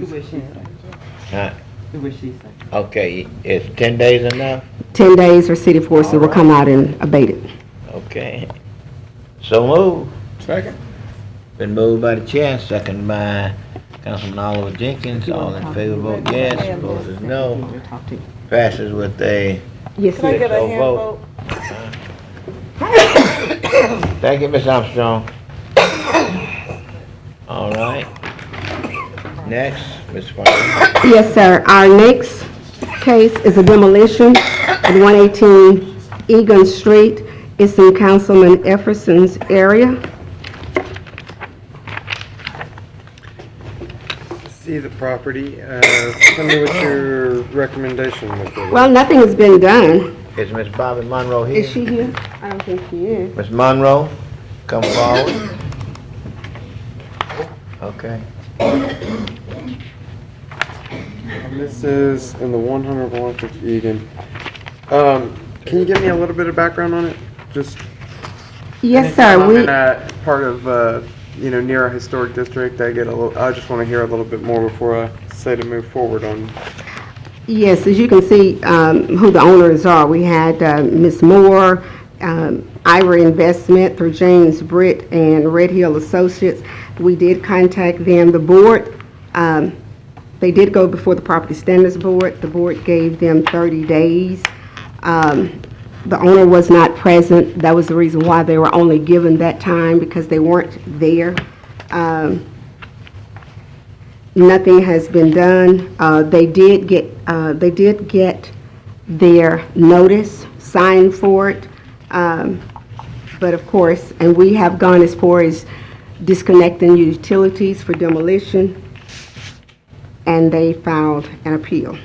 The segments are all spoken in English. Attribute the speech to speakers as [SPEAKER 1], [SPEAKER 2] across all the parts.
[SPEAKER 1] Do what she say.
[SPEAKER 2] Huh?
[SPEAKER 1] Do what she say.
[SPEAKER 2] Okay, is ten days enough?
[SPEAKER 3] 10 days, or city forces will come out and abate it.
[SPEAKER 2] Okay. So move.
[SPEAKER 4] Second.
[SPEAKER 2] Been moved by the chair, second by Councilman Oliver Jenkins. All in favor, vote yes. Opposed, is no.
[SPEAKER 1] Talk to you.
[SPEAKER 2] Passes with a
[SPEAKER 3] Yes,
[SPEAKER 5] Can I
[SPEAKER 3] sir.
[SPEAKER 5] get a
[SPEAKER 2] So
[SPEAKER 5] hand
[SPEAKER 2] vote.
[SPEAKER 5] vote?
[SPEAKER 2] Thank you, Ms. Armstrong. All right. Next, Ms. Farmer.
[SPEAKER 3] Yes, sir. Our next case is a demolition at 118 Egan Street. It's in Councilman Efferson's area.
[SPEAKER 6] see the property. Uh, Tell me what your recommendation would be.
[SPEAKER 3] Well, nothing has been done.
[SPEAKER 2] Is Ms. Bobby Monroe here?
[SPEAKER 3] Is she here? I don't think she is.
[SPEAKER 2] Ms. Monroe, come forward. Okay.
[SPEAKER 6] And This is in the 100 block of Egan. Um, Can you give me a little bit of background on it? Just,
[SPEAKER 3] Yes,
[SPEAKER 6] I'm
[SPEAKER 3] sir. We,
[SPEAKER 6] in a part of, uh, you know, near a historic district. I get a little, I just want to hear a little bit more before I say to move forward on.
[SPEAKER 3] Yes, as you can see um, who the owners are. We had uh, Ms. Moore, um, Ira Investment through James Britt and Red Hill Associates. We did contact them. The board, um, they did go before the Property Standards Board. The board gave them 30 days. Um, The owner was not present. That was the reason why they were only given that time, because they weren't there. Um, nothing has been done. Uh, They did get, uh, they did get their notice, signed for it. Um, But of course, and we have gone as far as disconnecting utilities for demolition, and they filed an appeal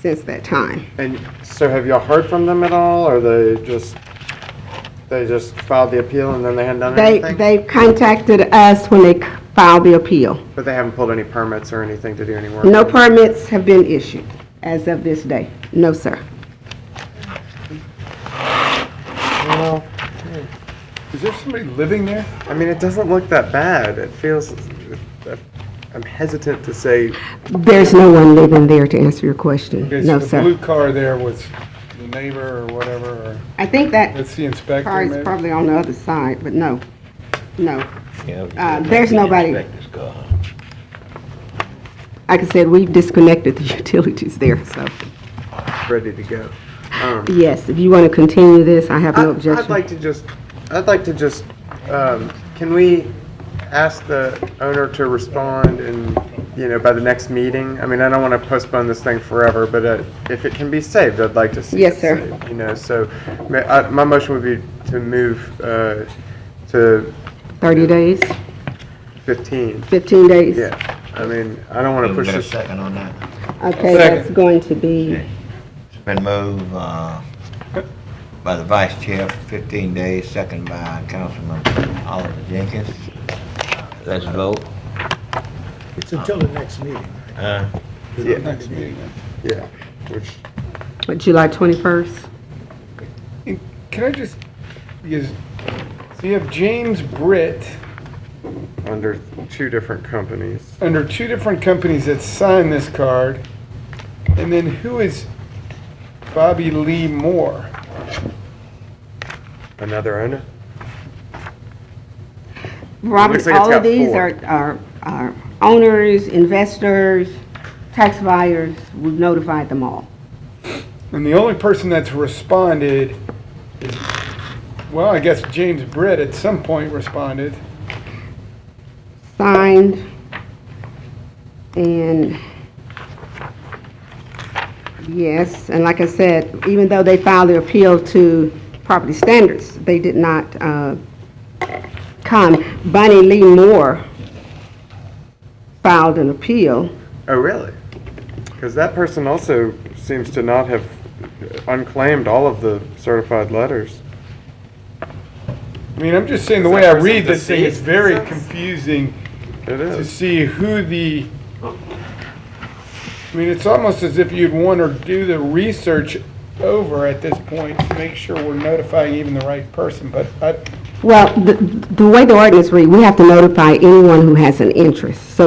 [SPEAKER 3] since that time.
[SPEAKER 6] And so have y'all heard from them at all? Or they just, they just filed the appeal and then they hadn't done
[SPEAKER 3] They,
[SPEAKER 6] anything?
[SPEAKER 3] they contacted us when they filed the appeal.
[SPEAKER 6] But they haven't pulled any permits or anything to do any work?
[SPEAKER 3] No permits have been issued as of this day. No, sir.
[SPEAKER 6] Well,
[SPEAKER 4] Is there somebody living there?
[SPEAKER 6] I mean, it doesn't look that bad. It feels. I'm hesitant to say.
[SPEAKER 3] There's no one living there to answer your question.
[SPEAKER 4] Okay,
[SPEAKER 3] No,
[SPEAKER 4] so the
[SPEAKER 3] sir.
[SPEAKER 4] blue car there was the neighbor or whatever, or
[SPEAKER 3] I think that
[SPEAKER 4] that's the inspector
[SPEAKER 3] car is
[SPEAKER 4] maybe?
[SPEAKER 3] probably on the other side, but no, no.
[SPEAKER 2] Yeah, we
[SPEAKER 3] Uh,
[SPEAKER 2] can
[SPEAKER 3] there's
[SPEAKER 2] make the
[SPEAKER 3] nobody.
[SPEAKER 2] inspectors go home.
[SPEAKER 3] Like I said, we've disconnected the utilities there, so.
[SPEAKER 6] Ready to go. Um,
[SPEAKER 3] Yes, if you want to continue this, I have
[SPEAKER 6] I,
[SPEAKER 3] no
[SPEAKER 6] would
[SPEAKER 3] objection.
[SPEAKER 6] like to just. I'd like to just. Um, can we ask the owner to respond and you know by the next meeting? I mean, I don't want to postpone this thing forever, but uh, if it can be saved, I'd like to see.
[SPEAKER 3] Yes,
[SPEAKER 6] it
[SPEAKER 3] sir.
[SPEAKER 6] saved, you know, so ma- I, my motion would be to move uh, to
[SPEAKER 3] 30 days,
[SPEAKER 6] 15.
[SPEAKER 3] 15 days?
[SPEAKER 6] Yeah. I mean, I don't want to
[SPEAKER 2] Give
[SPEAKER 6] push
[SPEAKER 2] me a
[SPEAKER 6] this.
[SPEAKER 2] second on that.
[SPEAKER 3] Okay, that's going to be,
[SPEAKER 2] It's been moved, uh, by the vice chair for fifteen days, second by Councilman Oliver Jenkins. Let's vote.
[SPEAKER 7] It's until the next meeting.
[SPEAKER 2] Uh,
[SPEAKER 6] Yeah.
[SPEAKER 4] Next meeting. then.
[SPEAKER 6] Yeah. Which
[SPEAKER 3] what, July 21st?
[SPEAKER 4] Can I just, because, so you have James Britt
[SPEAKER 6] under two different companies.
[SPEAKER 4] under two different companies that signed this card, and then who is Bobby Lee Moore?
[SPEAKER 6] Another owner?
[SPEAKER 3] Robert,
[SPEAKER 6] looks like it's
[SPEAKER 3] all of
[SPEAKER 6] got
[SPEAKER 3] these
[SPEAKER 6] four.
[SPEAKER 3] are, are are owners, investors, tax buyers, we've notified them all.
[SPEAKER 4] And the only person that's responded is, well, I guess James Britt at some point responded.
[SPEAKER 3] signed, and yes, and like I said, even though they filed their appeal to property standards, they did not uh, come. Bonnie Lee Moore filed an appeal.
[SPEAKER 6] Oh, really? Because that person also seems to not have unclaimed all of the certified letters.
[SPEAKER 4] I mean, I'm just saying the
[SPEAKER 6] Is
[SPEAKER 4] way
[SPEAKER 6] that
[SPEAKER 4] I
[SPEAKER 6] person
[SPEAKER 4] read this thing, it's
[SPEAKER 6] deceased?
[SPEAKER 4] very
[SPEAKER 6] Is that-
[SPEAKER 4] confusing
[SPEAKER 6] It
[SPEAKER 4] to
[SPEAKER 6] is.
[SPEAKER 4] see who the, I mean, it's almost as if you'd want to do the research over at this point to make sure we're notifying even the right person, but I,
[SPEAKER 3] Well, the the way the ordinance read, we have to notify anyone who has an interest. So